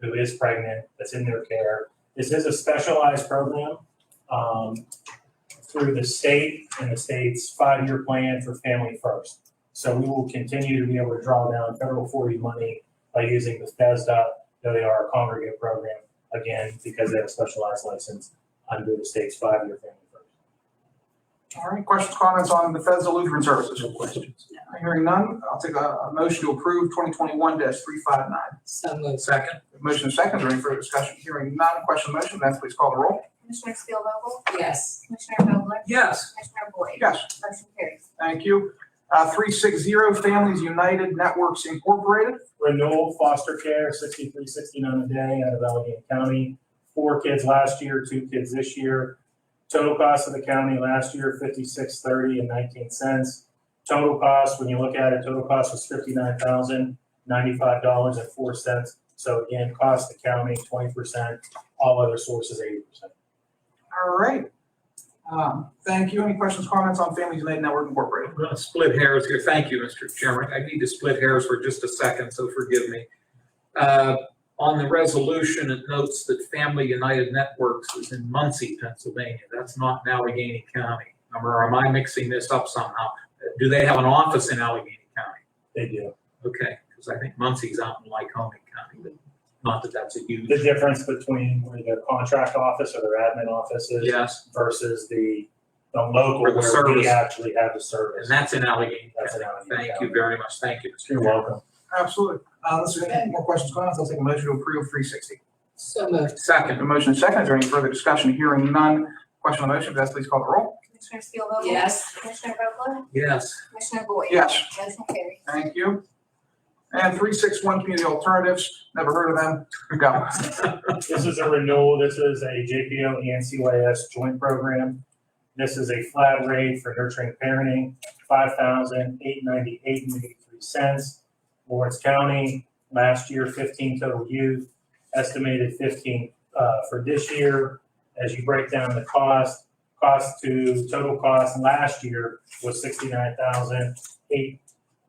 who is pregnant, that's in their care. This is a specialized program um, through the state and the state's five-year plan for Family First. So we will continue to be able to draw down federal 40 money by using the FESDA, though they are a congregate program, again, because they have a specialized license under the state's five-year Family First. All right, questions, comments on Bethesda Lutheran Services? questions. Hearing none, I'll take a, a motion to approve twenty twenty-one three five nine. So moved. Second? Motion is second, is there any further discussion? Hearing none, question on the motion, Vanessa, please call the roll. Commissioner Spielvogel? Yes. Commissioner Vogler? Yes. Commissioner Boyd? Yes. Motion carries. Thank you. Uh, three six zero Families United Networks Incorporated. renewal foster care, sixty-three, sixty-nine a day out of Allegheny County. Four kids last year, two kids this year. Total cost of the county last year, fifty-six, thirty and nineteen cents. Total cost, when you look at it, total cost was fifty-nine thousand, ninety-five dollars and four cents. So again, cost the county twenty percent, all other sources eighty percent. All right. Um, thank you. Any questions, comments on Families United Network Incorporated? I'm gonna split hairs here. Thank you, Mr. Chairman. I need to split hairs for just a second, so forgive me. Uh, On the resolution, it notes that Family United Networks is in Muncie, Pennsylvania. That's not in Allegheny County. Or am I mixing this up somehow? Do they have an office in Allegheny County? They do. Okay, because I think Muncie's out in Lycoming County, but not that that's a huge, The difference between where their contract office or their admin office is yes, versus the, the local Or the where we service. actually have the service. and that's in Allegheny That's in County. Allegheny Thank you very much, thank you. Mr. You're Chairman. welcome. Absolutely. Uh, unless there's any more questions, comments, I'll take a motion to approve three sixty. So moved. A Second, motion is second, is there any further discussion? Hearing none, question on the motion, Vanessa, please call the roll. Commissioner Spielvogel? Yes. Commissioner Vogler? yes, Commissioner Boyd? Yes. Motion carries. Thank you. And three six one Community Alternatives, never heard of them, go. This is a renewal, this is a JPO and CYS joint program. This is a flat rate for nurturing parenting, five thousand eight ninety-eight and eighty-three cents. Lawrence County, last year fifteen total youth, estimated fifteen, uh, for this year. As you break down the cost, cost to, total cost last year was sixty-nine thousand eight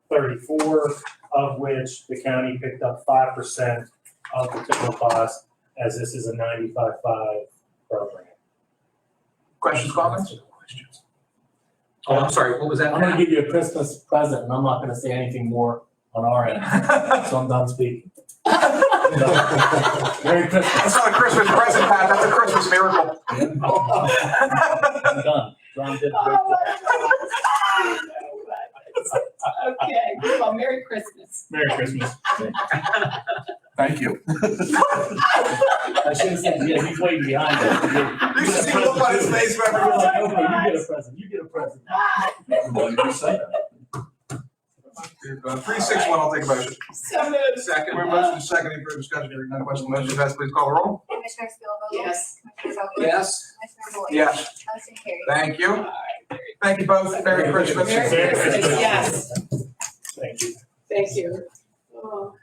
thirty-four, of which the county picked up five percent of the total cost as this is a 95.5 program. Questions, comments? oh, I'm sorry, what was that? I'm gonna give you a Christmas present, and I'm not gonna say anything more on our end, so I'm done speaking. Merry That's Christmas. not a Christmas present, Pat, that's a Christmas miracle. I'm done. John did a great job. Okay, well, Merry Christmas. Merry Christmas. Thank you. I should have said, yeah, he's waiting behind us. You should see the look on his face when everyone- You're like, "Okay, You get a present, you get a present. Three six one, I'll take a motion. So moved. Second. We're motion is second, any further discussion? Hearing none, question on the motion, Vanessa, please call the roll. Commissioner Spielvogel? Yes. Commissioner Vogler? Yes. Commissioner Boyd? Yes. Motion carries. Thank All you. right, very- Thank you both, Merry Christmas. Merry Christmas, yes. Thank you. Thank you. Oh,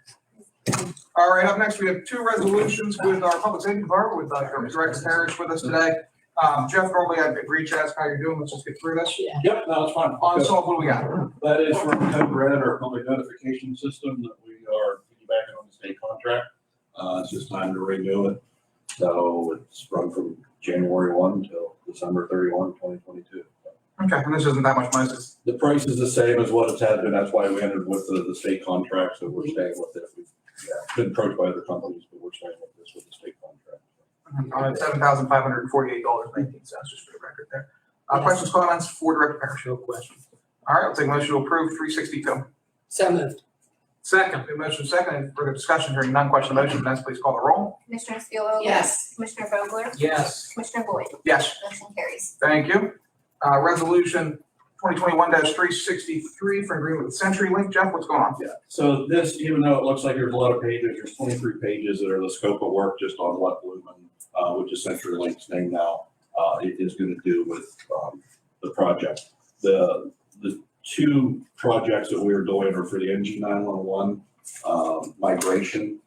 All right, up next, we have two resolutions with our public safety department, with uh, Rex Harris with us today. Um, Jeff, normally I'd reach out, how you're doing, let's just get through this. Yeah. Yep, no, it's fine. On Salt, what do we got? That is from Code Red, our public notification system that we are piggybacking on the state contract. Uh, it's just time to renew it. So it's run from January one till December 31, 2022. Okay, and this isn't that much money, it's The price is the same as what it's had been. That's why we ended with the, the state contract, so we're staying with it. We've yeah, been approached by other companies, but we're staying with this with the state contract. on seven thousand five hundred and forty-eight dollars nineteen cents, just for the record there. Uh, questions, comments for Director Parrish? No questions. All right, I'll take a motion to approve three sixty-two. So moved. Second, motion second, and further discussion, hearing none, question on the motion, Vanessa, please call the roll. Commissioner Spielvogel? Yes. Commissioner Vogler? yes. Commissioner Boyd? Yes. Motion carries. Thank you. Uh, resolution twenty twenty-one three sixty-three for agreement with CenturyLink. Jeff, what's going on? Yeah, so this, even though it looks like there's a lot of pages, there's twenty-three pages that are the scope of work just on what Lumen, uh, which is CenturyLink's name now, uh, it is gonna do with, um, the project. The, the two projects that we're doing are for the NG nine-one-one, um, migration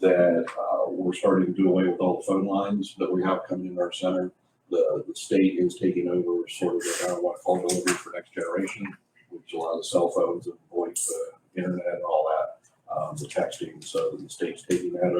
that, uh, we're starting to do away with all the phone lines that we have coming in our center. The, the state is taking over sort of the, uh, what call delivery for next generation which allows cell phones and voice, uh, internet and all that, um, the texting, so the state's taking that